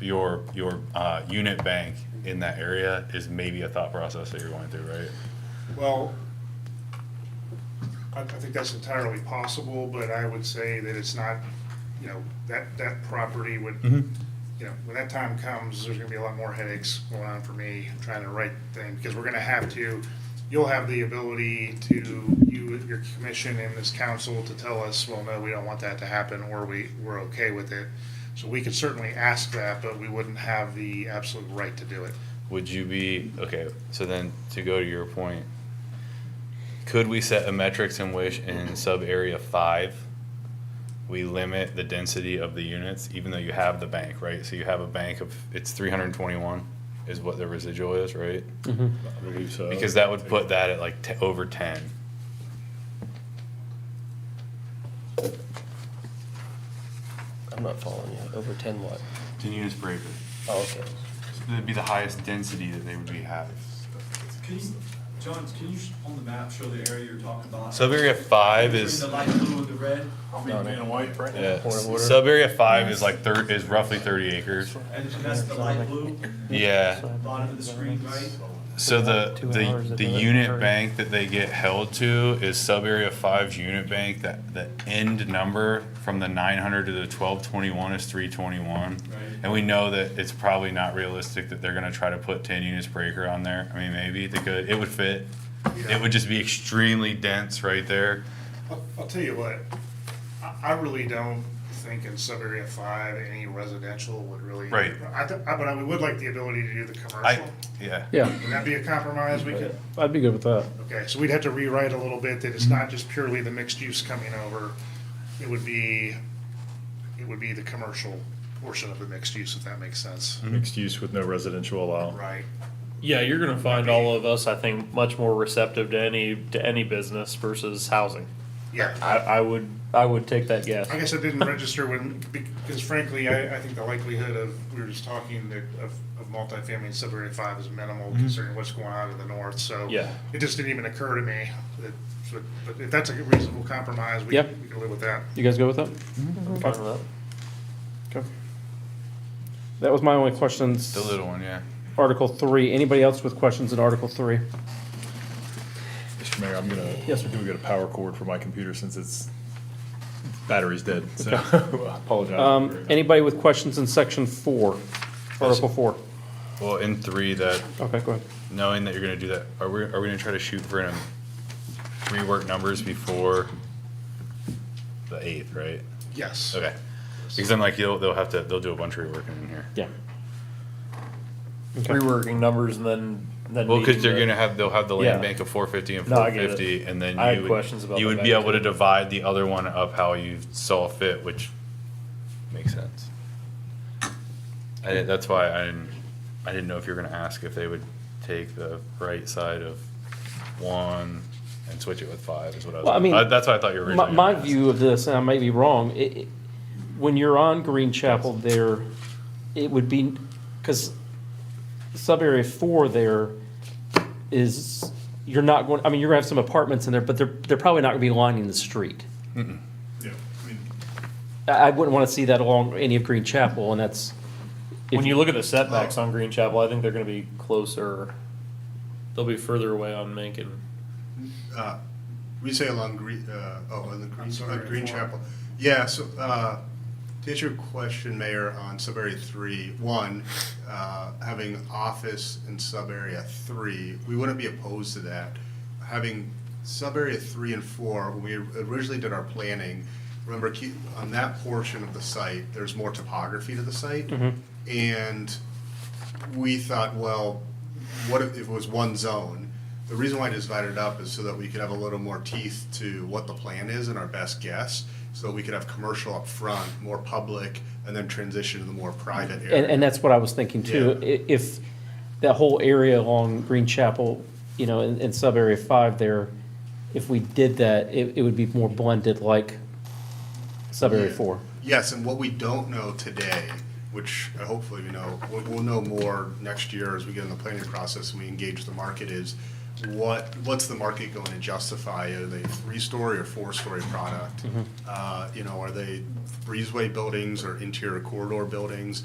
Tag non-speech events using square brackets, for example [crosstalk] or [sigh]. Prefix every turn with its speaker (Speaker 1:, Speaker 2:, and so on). Speaker 1: your, your, uh, unit bank in that area is maybe a thought process that you're going through, right?
Speaker 2: Well, I, I think that's entirely possible, but I would say that it's not, you know, that, that property would, you know, when that time comes, there's gonna be a lot more headaches going on for me, trying to write things, because we're gonna have to, you'll have the ability to, you, your commission and this council to tell us, well, no, we don't want that to happen, or we, we're okay with it. So we could certainly ask that, but we wouldn't have the absolute right to do it.
Speaker 1: Would you be, okay, so then to go to your point, could we set a metrics in which in sub area five, we limit the density of the units, even though you have the bank, right? So you have a bank of, it's three hundred and twenty-one is what the residual is, right?
Speaker 3: I believe so.
Speaker 1: Because that would put that at like te- over ten.
Speaker 4: I'm not following you. Over ten what?
Speaker 1: Ten units per acre.
Speaker 4: Oh, okay.
Speaker 1: It'd be the highest density that they would be having.
Speaker 5: Can you, John, can you, sh- on the map, show the area you're talking about?
Speaker 1: Sub area five
Speaker 5: Between
Speaker 1: is,
Speaker 5: The light blue and the red,
Speaker 4: No, no.
Speaker 3: white right now.
Speaker 1: yeah,
Speaker 4: Point of order.
Speaker 1: sub area five is like thir- is roughly thirty acres.
Speaker 5: and that's the light blue,
Speaker 1: Yeah.
Speaker 5: bottom of the screen, right?
Speaker 1: So the,
Speaker 6: About two hours
Speaker 1: the,
Speaker 6: of
Speaker 1: the
Speaker 6: delivery.
Speaker 1: unit bank that they get held to is sub area five's unit bank, that, the end number from the nine hundred to the twelve twenty-one is three twenty-one.
Speaker 5: Right.
Speaker 1: And we know that it's probably not realistic that they're gonna try to put ten units per acre on there, I mean, maybe they could, it would fit. It would just be extremely dense right there,
Speaker 2: I'll, I'll tell you what, I, I really don't think in sub-area five, any residential would really.
Speaker 1: Right.
Speaker 2: I, th- I- but I would like the ability to do the
Speaker 1: I,
Speaker 2: commercial.
Speaker 1: yeah.
Speaker 6: Yeah,
Speaker 2: Would that be a compromise we could,
Speaker 6: I'd be good with that.
Speaker 2: okay, so we'd have to rewrite a little bit that it's not just purely the mixed use coming over. It would be, it would be the commercial portion of the mixed use, if that makes sense.
Speaker 3: Mixed use with no residential
Speaker 1: Mm-hmm.
Speaker 3: allowed.
Speaker 2: Right.
Speaker 7: Oh, Yeah, you're gonna find all of us, I think, much more receptive to any to any business versus housing.
Speaker 2: Yeah.
Speaker 7: I, I would I would take that guess.
Speaker 2: I guess I didn't register when, because frankly, I, I think the likelihood of, we were just talking that of, of multifamily in sub-area five is minimal considering what's going on in the north, so.
Speaker 7: Yeah.
Speaker 2: It just didn't even occur to me, that, but, but if that's a reasonable compromise, we,
Speaker 6: Yeah.
Speaker 2: we can live with that.
Speaker 6: You guys good with that?
Speaker 7: I'm fine with that.
Speaker 6: Okay. That was my only questions.
Speaker 1: The little one, yeah.
Speaker 6: Article three. Anybody else with questions in Article three?
Speaker 3: Mr. Mayor, I'm gonna,
Speaker 6: Yes, sir.
Speaker 3: do we get a power cord for my computer since it's, battery's dead,
Speaker 6: [laughs]
Speaker 3: so I apologize.
Speaker 6: Um, anybody with questions in section four? Article four.
Speaker 1: Well, in three, that,
Speaker 6: Okay, go ahead.
Speaker 1: knowing that you're gonna do that, are we, are we gonna try to shoot for an rework numbers before the eighth, right?
Speaker 2: Yes.
Speaker 1: Okay. Because I'm like, they'll, they'll have to, they'll do a bunch of reworking in here.
Speaker 6: Yeah. Okay.
Speaker 7: Reworking numbers and then then.
Speaker 1: Well, because
Speaker 7: meeting
Speaker 1: they're
Speaker 7: the-
Speaker 1: gonna have, they'll have the land
Speaker 7: Yeah.
Speaker 1: bank of four fifty and
Speaker 7: No,
Speaker 1: four
Speaker 7: I get it.
Speaker 1: fifty, and then
Speaker 7: I had
Speaker 1: you
Speaker 7: questions about
Speaker 1: would, you
Speaker 7: the
Speaker 1: would be
Speaker 7: bank,
Speaker 1: able to
Speaker 7: too.
Speaker 1: divide the other one up how you saw fit, which makes sense. I, didn't- that's why I didn't, I didn't know if you were gonna ask if they would take the right side of one and switch it with five is what I
Speaker 6: Well, I
Speaker 1: was,
Speaker 6: mean,
Speaker 1: I- that's what I thought you were
Speaker 6: My,
Speaker 1: originally.
Speaker 6: my
Speaker 1: gonna ask.
Speaker 6: view of this, and I may be wrong, it, it- when you're on Green Chapel there, it would be, because sub-area four there is, you're not going, I mean, you're gonna have some apartments in there, but they're, they're probably not gonna be lining the street.
Speaker 3: Yeah, I mean,
Speaker 6: I, I wouldn't want to see that along any of Green Chapel, and that's,
Speaker 7: When you look at the setbacks on Green Chapel, I think they're gonna be closer. They'll be further away on Mankin.
Speaker 8: uh, we say along Green, uh, oh, on the Green,
Speaker 2: sorry,
Speaker 8: on Green
Speaker 2: four.
Speaker 8: Chapel. Yeah, so, uh, to answer your question, Mayor, on sub-area three, one, uh, having office in sub-area three, we wouldn't be opposed to that. Having sub-area three and four, when we originally did our planning, remember, keep, on that portion of the site, there's more topography to the site. And we thought, well, what if it was one zone? The reason why I divided it up is so that we could have a little more teeth to what the plan is and our best guess. So we could have commercial up front, more public, and then transition to the more private area.
Speaker 6: and, and that's what I was thinking too. I- If that whole area along Green Chapel, you know, in, in sub-area five there, if we did that, it, it would be more blended like sub-area
Speaker 8: Yeah.
Speaker 6: four.
Speaker 8: Yes, and what we don't know today, which uh, hopefully we know, we'll, we'll know more next year as we get in the planning process and we engage the market is what, what's the market going to justify? Are they three-story or four-story product? Uh, you know, are they breezeway buildings or interior corridor buildings?